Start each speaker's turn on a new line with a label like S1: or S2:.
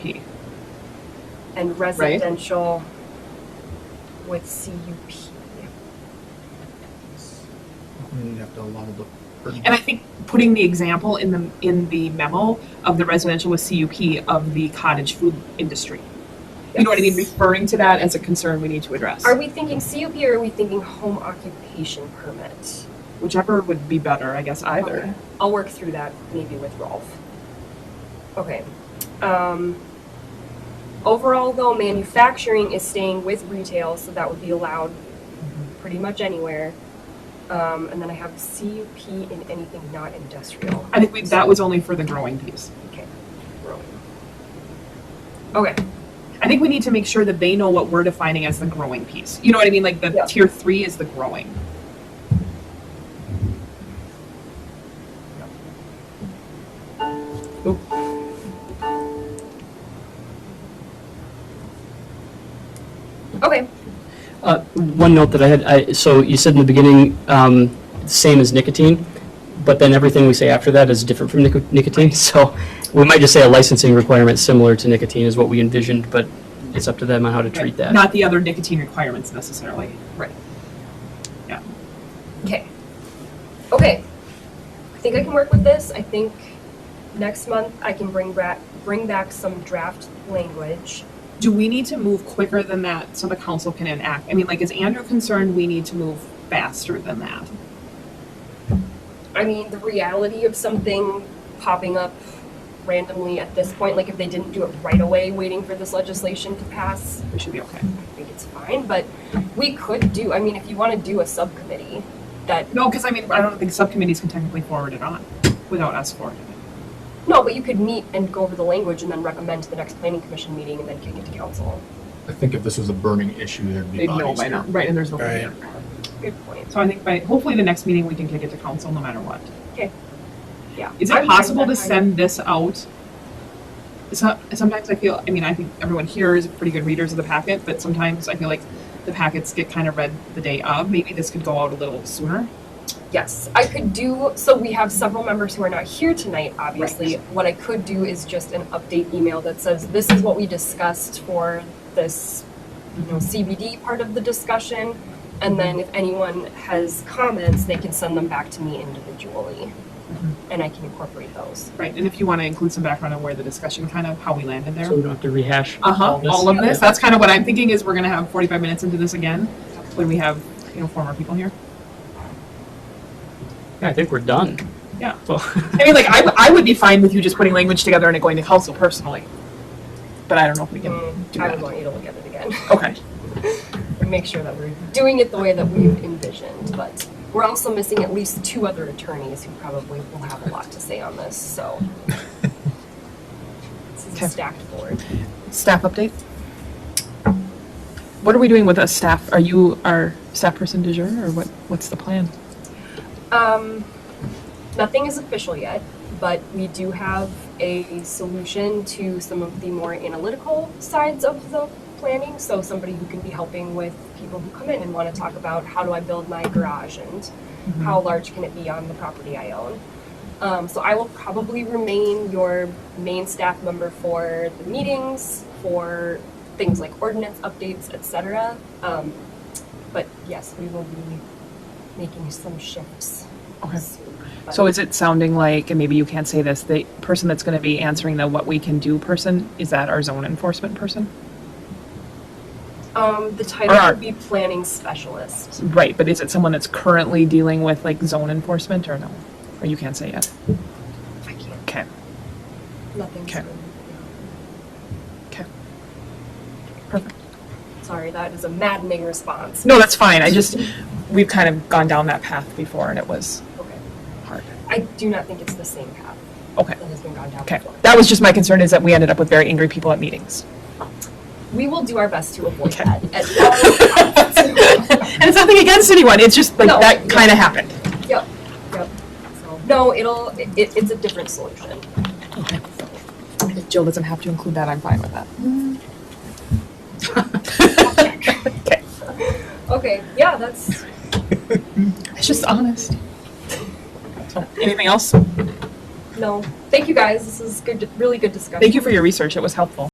S1: P.
S2: and residential with CUP.
S3: You'd have to allow the.
S1: And I think putting the example in the, in the memo of the residential with CUP of the cottage food industry. You know what I mean?
S2: Yes.
S1: Referring to that as a concern we need to address,
S2: Are we thinking CUP or are we thinking home occupation permit?
S1: whichever would be better, I guess,
S2: Okay.
S1: either.
S2: I'll work through that maybe with Rolf. Okay. Um, overall, though, manufacturing is staying with retail, so that would be allowed
S1: Mm-hmm.
S2: pretty much anywhere. Um, and then I have CUP in anything not industrial.
S1: I think we, that was only for the growing piece.
S2: Growing. Okay.
S1: I think we need to make sure that they know what we're defining as the growing piece. You know what I mean? Like the
S2: Yeah.
S1: tier three is the growing.
S2: Okay.
S4: Uh, One note that I had, I- so you said in the beginning, um, same as nicotine, but then everything we say after that is different from nico- nicotine. So we might just say a licensing requirement similar to nicotine is what we envisioned, but it's up to them on how to treat that.
S1: Not the other nicotine requirements necessarily.
S2: Okay. Okay. I think I can work with this. I think next month I can bring back bring back some draft language.
S1: Do we need to move quicker than that so the council can enact? I mean, like, is Andrew concerned we need to move faster than that?
S2: I mean, the reality of something popping up randomly at this point, like if they didn't do it right away, waiting for this legislation to pass,
S1: We should be okay.
S2: I think it's fine. But we could do. I mean, if you want to do a subcommittee, that
S1: No, because I mean, I don't think subcommittees can technically forward it on without us forwarding it.
S2: no, but you could meet and go over the language and then recommend to the next planning commission meeting and then kick it to council.
S3: I think if this was a burning issue, there'd be
S1: They'd know
S3: bodies
S1: by now,
S3: here.
S1: right, and there's no.
S5: Right.
S2: Good point.
S1: So I think by, hopefully the next meeting, we can kick it to council no matter what.
S2: Yeah.
S1: Is
S2: I'm fine
S1: it
S2: with
S1: possible to
S2: that.
S1: send this out? So- Sometimes I feel, I mean, I think everyone here is pretty good readers of the packet, but sometimes I feel like the packets get kind of read the day of. Maybe this could go out a little sooner.
S2: Yes, I could do, so we have several members who are not here tonight, obviously. What I could do is just an update email that says, this is what we discussed for this, you know, CBD part of the discussion. And then if anyone has comments, they can send them back to me individually.
S1: Mm-hmm.
S2: And I can incorporate those.
S1: Right, and if you want to include some background on where the discussion kind of, how we landed there.
S4: So we don't have to rehash all
S1: Uh-huh,
S4: this.
S1: all of this, that's kind of what I'm thinking is we're gonna have forty-five minutes into this again, when we have, you know, former people here.
S4: Yeah, I think we're done.
S1: Yeah.
S4: Well,
S1: I mean, like, I, w- I would be fine with you just putting language together and it going to council personally. But I don't know if we can
S2: Mm,
S1: do
S2: I would
S1: that.
S2: want you to look at it again
S1: Okay,
S2: and make sure that we're doing it the way that we envisioned. But we're also missing at least two other attorneys who probably will have a lot to say on this, so. This is
S1: Okay.
S2: a stacked board.
S1: staff update? What are we doing with a staff? Are you our staff person du jour, or what, what's the plan?
S2: Um, nothing is official yet, but we do have a solution to some of the more analytical sides of the planning. So somebody who can be helping with people who come in and want to talk about how do I build my garage and
S1: Mm-hmm.
S2: how large can it be on the property I own. Um, so I will probably remain your main staff member for the meetings, for things like ordinance updates, etc. Um, but yes, we will be making some shifts.
S1: Okay.
S2: soon. But-
S1: So is it sounding like, and maybe you can't say this, the person that's gonna be answering the what we can do person, is that our zone enforcement person?
S2: um, the title
S1: Or-
S2: would be planning specialist.
S1: Right, but is it someone that's currently dealing with like zone enforcement or no? Or you can't say yet?
S2: I can't.
S1: Okay.
S2: Nothing's
S1: Okay.
S2: been-
S1: Perfect.
S2: Sorry, that is a maddening response.
S1: No, that's fine. I just, we've kind of gone down that path before and it was
S2: Okay.
S1: hard.
S2: I do not think it's the same path
S1: Okay.
S2: that has been gone down
S1: Okay.
S2: before.
S1: That was just my concern is that we ended up with very angry people at meetings.
S2: We will do our best to avoid
S1: Okay.
S2: that. uh, at all costs.
S1: And it's nothing against anyone. It's just like
S2: No,
S1: that
S2: yeah.
S1: kind of happened.
S2: yep, yep. So, no, it'll it, it- it's a different solution.
S1: If Jill doesn't have to include that, I'm fine with that.
S2: Okay, yeah, that's
S1: It's just honest. So, anything else?
S2: no. Thank you guys. This is good, really good discussion.
S1: Thank you for your research. It was helpful.